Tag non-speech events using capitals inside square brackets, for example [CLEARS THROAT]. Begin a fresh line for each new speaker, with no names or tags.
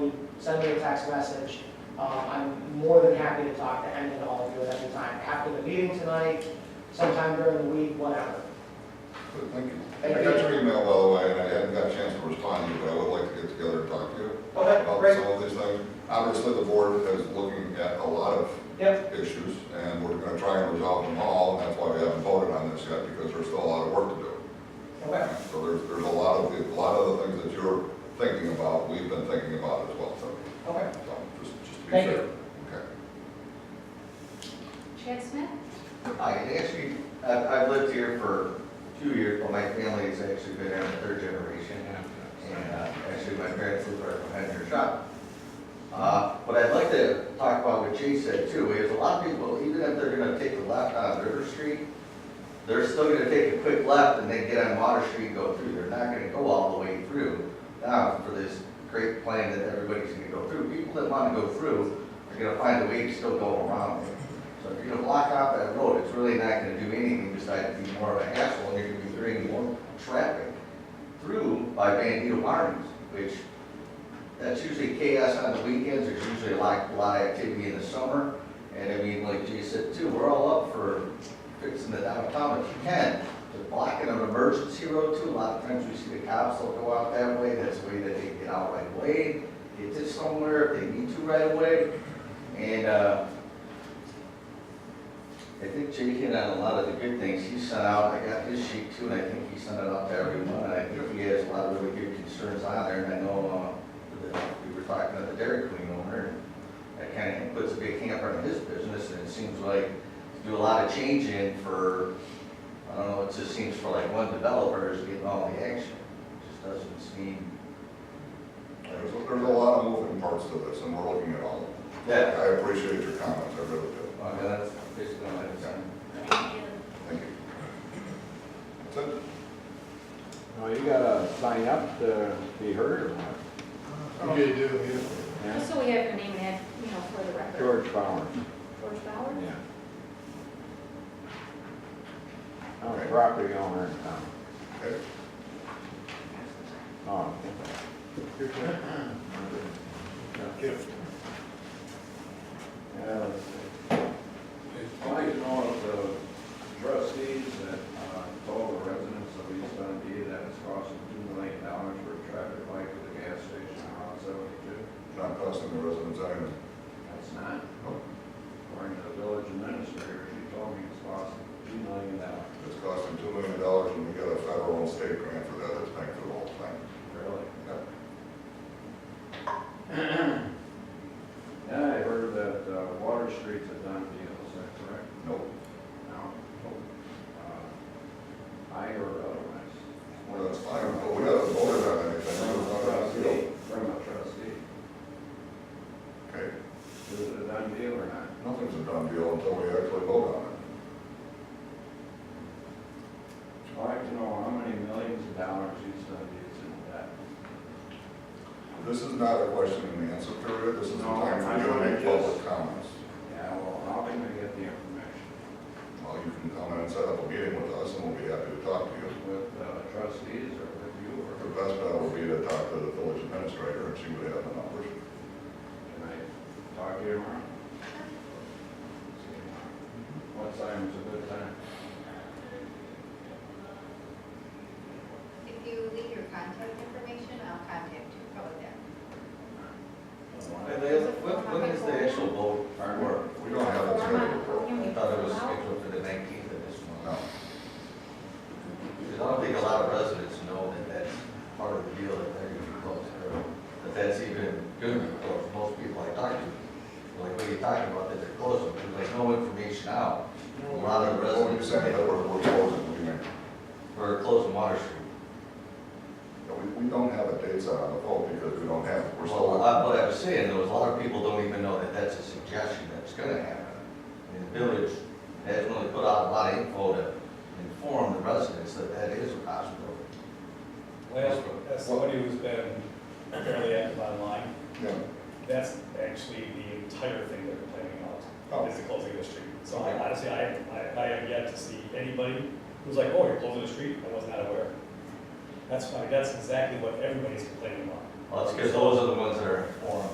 send me a text message. Um, I'm more than happy to talk to any and all of you at any time, after the meeting tonight, sometime during the week, whatever.
Good, Thank you.
Thank
I got
you.
your email, by the way, and I haven't got a chance to respond to you, but I would like to get together and talk to you
Okay,
about
great,
some of these things. Obviously, the board is looking at a lot of
yep,
issues, and we're gonna try and resolve them all, and that's why we haven't voted on this yet, because there's still a lot of work to do.
okay,
So there's, there's a lot of, the- a lot of the things that you're thinking about, we've been thinking about as well, so,
okay.
so just, just be
Thank you.
fair. Okay.
Chad Smith?
I can actually, I've, I've lived here for two years, but my family's actually been here in the third generation. And uh, actually, my parents live right behind your shop. Uh, But I'd like to talk about what Jay said too, is a lot of people, even if they're gonna take a left on River Street, they're still gonna take a quick left and then get on Water Street and go through. They're not gonna go all the way through now for this great plan that everybody's gonna go through. People that wanna go through are gonna find a way to still go around it. So if you're gonna block off that road, it's really not gonna do anything besides be more of a hassle, and you're gonna be bringing more traffic through by Bandito Farms, which, that's usually chaos on the weekends, there's usually a lot, a lot of activity in the summer, and I mean, like Jay said too, we're all up for fixing the downtown if you can, but blocking an emergency road too, a lot of times we see the cops will go out that way, that's the way that they get out right away, get to somewhere if they need to right away, and, uh, I think Jay hit on a lot of the good things he sent out, I got this sheet too, and I think he sent it out to everyone, and I think he has a lot of really good concerns on there, and I know, uh, that we were talking to the Dairy Queen owner, and that kind of puts a big hamper on his business, and it seems like to do a lot of change in for, I don't know, it just seems for like one developer is getting all the action, It just doesn't seem.
There's, there's a lot of moving parts to this, and we're looking at all of them.
Yeah,
I appreciate your comments, I really do.
well, uh, that's basically what I'm saying.
Thank you.
Thank you. That's it.
No, you gotta sign up to be heard or what?
You do, yeah.
Yeah.
Just so we have your name and, you know, for the record.
George Bauer,
George Bauer?
yeah. I'm a property owner in town.
Okay.
Oh,
Your turn.
okay.
Gift.
Yeah, let's see.
Uh, It's probably one of the trustees that uh, told the residents of East Dundee that it's costing two million dollars for a traffic light for the gas station on Route seventy-two.
Not costing the residents anything.
That's not. oh, According to the village administrator, she told me it's costing two million dollars.
It's costing two million dollars and we got a federal and state grant for that, it's paying for the whole thing.
Really?
Yep.
[CLEARS THROAT] Yeah, I heard that uh, Water Street's a done deal, is that correct?
Nope.
No. Uh, I heard otherwise.
Well, that's fine, but we haven't voted on anything.
From
It
a
was not on the
trustee,
field.
from a trustee.
Okay,
Is it a done deal or not?
nothing's a done deal until we actually vote on it.
I'd like to know how many millions of dollars each of these in debt.
This is not a question and answer period, this is a
No,
time for
I
you to make
don't
public comments.
Yeah, well, how can I get the information?
Well, you can come in and set up a meeting with us and we'll be happy to talk to you.
With uh, trustees or with you or
The best bet would be to talk to the village administrator and she would have the numbers.
can I talk to you tomorrow? What time is a good time?
If you leave your contact information, I'll contact you, probably then.
And they- When, when is the actual vote for?
We don't have it scheduled for,
I thought it was scheduled for the nineteenth of this
no.
month. Because I don't think a lot of residents know that that's part of the deal that they're gonna be closed early. That that's even good, for most people I talk to, like, what are you talking about, that they're closing, there's like no information out. A lot of
Well, you
residents,
said that we're, we're closing, we may,
we're closing Water Street.
we, we don't have a date set on the poll because we don't have, we're still.
Well, I- what I was saying, though, is a lot of people don't even know that that's a suggestion that's gonna happen. And the village has really put out a lot of info to inform the residents that that is a possibility.
Last, as somebody who's been fairly active online,
Yeah,
that's actually the entire thing they're complaining
Oh.
about, is the closing of the street. So I- honestly, I, I, I have yet to see anybody who's like, oh, you're closing the street, I was not aware. That's why, that's exactly what everybody's complaining about.
Well, it's because those are the ones that are informed.